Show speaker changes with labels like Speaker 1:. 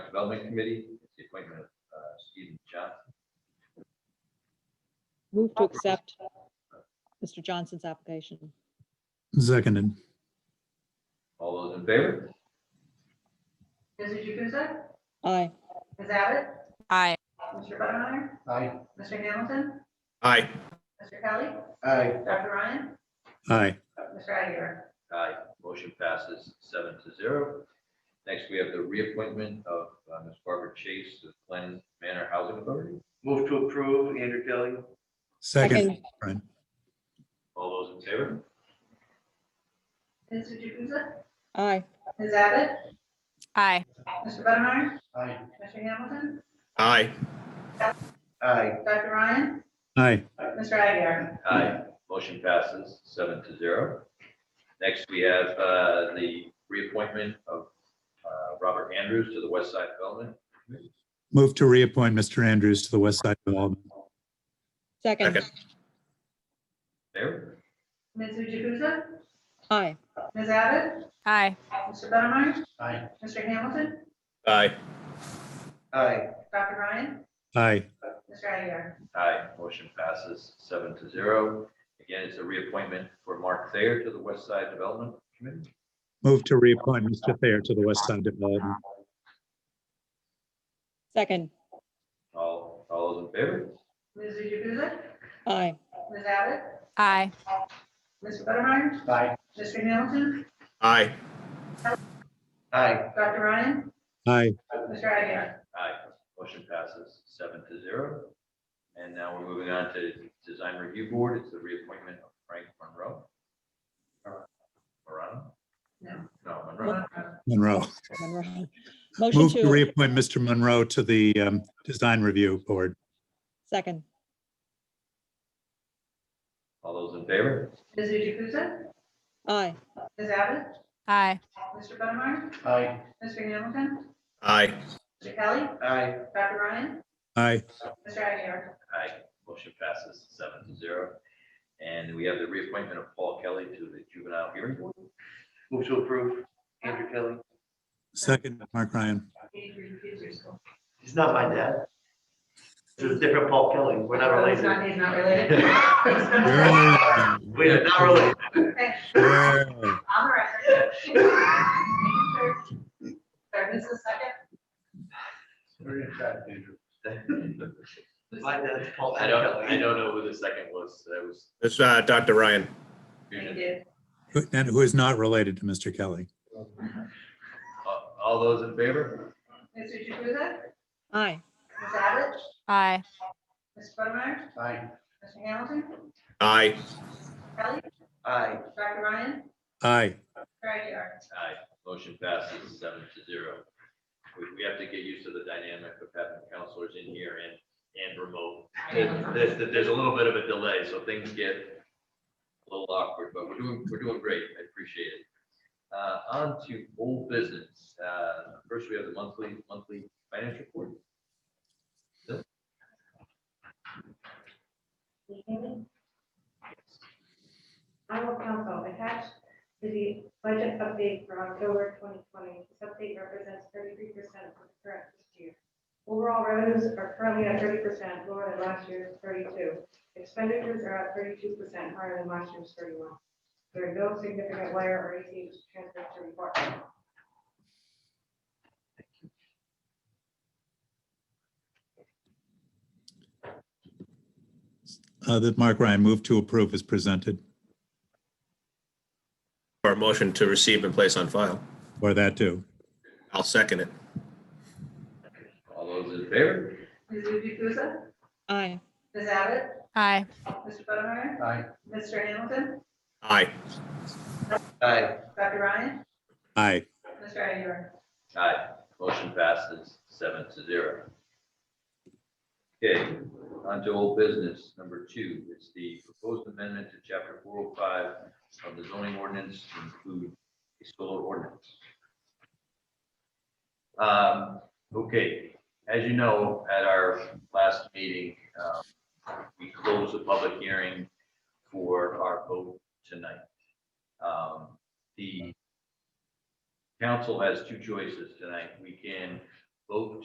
Speaker 1: Development Committee, it's the appointment of uh, Stephen Johnson.
Speaker 2: Move to accept Mr. Johnson's application.
Speaker 3: Seconded.
Speaker 1: All those in favor?
Speaker 4: Mrs. Jukusa?
Speaker 2: Aye.
Speaker 4: Ms. Abbott?
Speaker 5: Aye.
Speaker 4: Mr. Buttermeyer?
Speaker 6: Aye.
Speaker 4: Mr. Hamilton?
Speaker 7: Aye.
Speaker 4: Mr. Kelly?
Speaker 6: Aye.
Speaker 4: Dr. Ryan? Oh,
Speaker 3: Aye.
Speaker 4: Mr. Aguirre?
Speaker 1: Aye, motion passes seven to zero. Next, we have the reappointment of uh, Ms. Barbara Chase to the Glen Manor Housing Authority.
Speaker 6: Move to approve, Andrew Kelly.
Speaker 3: Second. Brian.
Speaker 1: All those in favor?
Speaker 4: Mrs. Jukusa?
Speaker 2: Aye.
Speaker 4: Ms. Abbott?
Speaker 5: Aye.
Speaker 4: Mr. Buttermeyer?
Speaker 6: Aye.
Speaker 4: Mr. Hamilton?
Speaker 7: Aye.
Speaker 6: Aye.
Speaker 4: Dr. Ryan?
Speaker 3: Aye.
Speaker 4: Mr. Aguirre?
Speaker 1: Aye, motion passes seven to zero. Next, we have uh, the reappointment of uh, Robert Andrews to the West Side Development.
Speaker 3: Move to reappoint Mr. Andrews to the West Side Development.
Speaker 2: Second.
Speaker 7: Second.
Speaker 1: There,
Speaker 4: Mrs. Jukusa?
Speaker 2: Aye.
Speaker 4: Ms. Abbott?
Speaker 5: Aye.
Speaker 4: Mr. Buttermeyer?
Speaker 6: Aye.
Speaker 4: Mr. Hamilton?
Speaker 7: Aye.
Speaker 6: Aye.
Speaker 4: Dr. Ryan?
Speaker 3: Aye.
Speaker 4: Mr. Aguirre?
Speaker 1: aye, motion passes seven to zero. Again, it's a reappointment for Mark Thayer to the West Side Development Committee.
Speaker 3: Move to reappoint Mr. Thayer to the West Side Development.
Speaker 2: Second.
Speaker 1: All, all those in favor?
Speaker 4: Mrs. Jukusa?
Speaker 2: Aye.
Speaker 4: Ms. Abbott?
Speaker 5: Aye.
Speaker 4: Mr. Buttermeyer?
Speaker 6: Aye.
Speaker 4: Mr. Hamilton?
Speaker 7: Aye.
Speaker 6: Aye.
Speaker 4: Dr. Ryan?
Speaker 3: Aye.
Speaker 4: Mr. Aguirre?
Speaker 1: Aye, motion passes seven to zero. And now we're moving on to Design Review Board, it's the reappointment of Frank Monroe. Morano?
Speaker 4: No.
Speaker 1: No, Monroe.
Speaker 3: Monroe.
Speaker 2: Monroe. Motion
Speaker 3: Move to
Speaker 2: to,
Speaker 3: reappoint Mr. Monroe to the um, Design Review Board.
Speaker 2: second.
Speaker 1: All those in favor?
Speaker 4: Mrs. Jukusa?
Speaker 2: Aye.
Speaker 4: Ms. Abbott?
Speaker 5: Aye.
Speaker 4: Mr. Buttermeyer?
Speaker 6: Aye.
Speaker 4: Mr. Hamilton?
Speaker 7: Aye.
Speaker 4: Mr. Kelly?
Speaker 6: Aye.
Speaker 4: Dr. Ryan?
Speaker 3: Aye.
Speaker 4: Mr. Aguirre?
Speaker 1: Aye, motion passes seven to zero. And we have the reappointment of Paul Kelly to the Juvenile Hearing Board.
Speaker 6: Move to approve, Andrew Kelly.
Speaker 3: Second, Mark Ryan.
Speaker 6: He's not my dad. It's a different Paul Kelly. We're not
Speaker 4: He's
Speaker 6: related.
Speaker 4: not, he's not related.
Speaker 3: Yeah.
Speaker 6: We're not related.
Speaker 3: Yeah.
Speaker 4: On the record. Sorry, this is second.
Speaker 6: My dad's Paul
Speaker 1: I don't, I
Speaker 6: Kelly.
Speaker 1: don't know who the second was, that was.
Speaker 7: It's uh, Dr. Ryan.
Speaker 4: Thank you.
Speaker 3: Who- And who is not related to Mr. Kelly.
Speaker 1: All- All those in favor?
Speaker 4: Mr. Jukusa?
Speaker 2: Aye.
Speaker 4: Ms. Abbott?
Speaker 5: Aye.
Speaker 4: Mr. Buttermeyer?
Speaker 6: Aye.
Speaker 4: Mr. Hamilton?
Speaker 7: Aye.
Speaker 4: Kelly?
Speaker 6: Aye.
Speaker 4: Dr. Ryan?
Speaker 3: Aye.
Speaker 4: Mr. Aguirre?
Speaker 1: Aye, motion passes seven to zero. We, we have to get used to the dynamic of having counselors in here and, and remote. There's, there's a little bit of a delay, so things get a little awkward, but we're doing, we're doing great. I appreciate it. Uh, on to old business. Uh, first we have the monthly, monthly financial report.
Speaker 8: Iowa Council, attached to the budget update for October 2020, this update represents 33% of the current fiscal year. Overall revenues are currently at 30% lower than last year's 32. Expenditures are at 32% higher than last year's 31. There are no significant wire or ACH transfers to report.
Speaker 3: Uh, That Mark Ryan moved to approve is presented.
Speaker 7: Our motion to receive and place on file.
Speaker 3: Or that too.
Speaker 7: I'll second it.
Speaker 1: All those in favor?
Speaker 4: Mrs. Jukusa?
Speaker 2: Aye.
Speaker 4: Ms. Abbott?
Speaker 5: Aye.
Speaker 4: Mr. Buttermeyer?
Speaker 6: Aye.
Speaker 4: Mr. Hamilton?
Speaker 7: Aye.
Speaker 6: Aye.
Speaker 4: Dr. Ryan?
Speaker 3: Aye.
Speaker 4: Mr. Aguirre?
Speaker 1: Aye, motion passes seven to zero. Okay, on to old business, number two, it's the proposed amendment to chapter four oh five of the zoning ordinance to include a solar ordinance. Um, okay, as you know, at our last meeting, um, we closed the public hearing for our vote tonight. Um, the council has two choices tonight. We can vote